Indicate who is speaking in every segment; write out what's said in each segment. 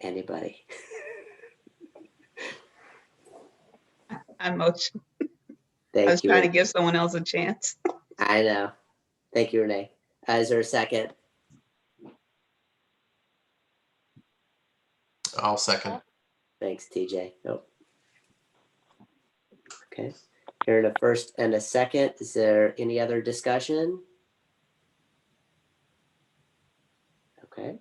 Speaker 1: anybody.
Speaker 2: I'm much, I was
Speaker 1: Thank you.
Speaker 2: trying to give someone else a chance.
Speaker 1: I know. Thank you, Renee. Uh, Is there a second?
Speaker 3: I'll second.
Speaker 1: Thanks, TJ. Oh. Okay, here in a first and a second. Is there any other discussion? Okay.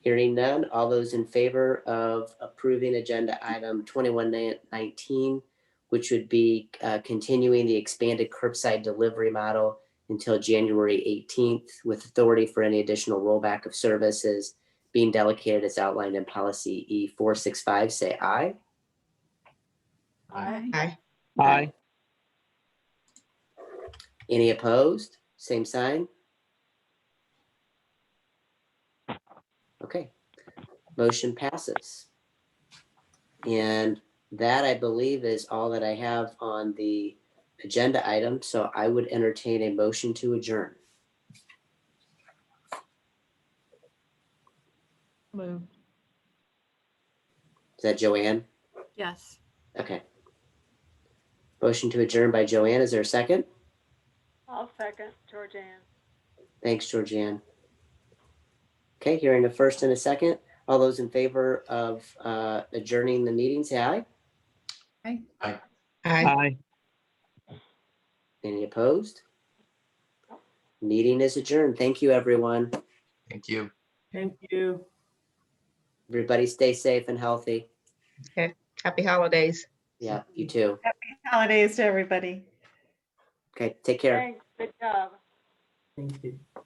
Speaker 1: Hearing none, all those in favor of approving agenda item twenty-one nineteen, which would be uh, continuing the expanded curbside delivery model until January eighteenth with authority for any additional rollback of services being delegated as outlined in policy E four six five, say aye.
Speaker 3: Aye.
Speaker 2: Aye.
Speaker 4: Aye.
Speaker 1: Any opposed? Same sign? Okay, motion passes. And that, I believe, is all that I have on the agenda item, so I would entertain a motion to adjourn.
Speaker 5: Move.
Speaker 1: Is that Joanne?
Speaker 5: Yes.
Speaker 1: Okay. Motion to adjourn by Joanne. Is there a second?
Speaker 6: I'll second Georgianne.
Speaker 1: Thanks, Georgianne. Okay, hearing a first and a second. All those in favor of uh, adjourning the meeting, say aye.
Speaker 2: Aye.
Speaker 4: Aye.
Speaker 1: Any opposed? Meeting is adjourned. Thank you, everyone.
Speaker 3: Thank you.
Speaker 5: Thank you.
Speaker 1: Everybody stay safe and healthy.
Speaker 2: Happy holidays.
Speaker 1: Yeah, you too.
Speaker 7: Holidays to everybody.
Speaker 1: Okay, take care.
Speaker 6: Thanks, good job.
Speaker 5: Thank you.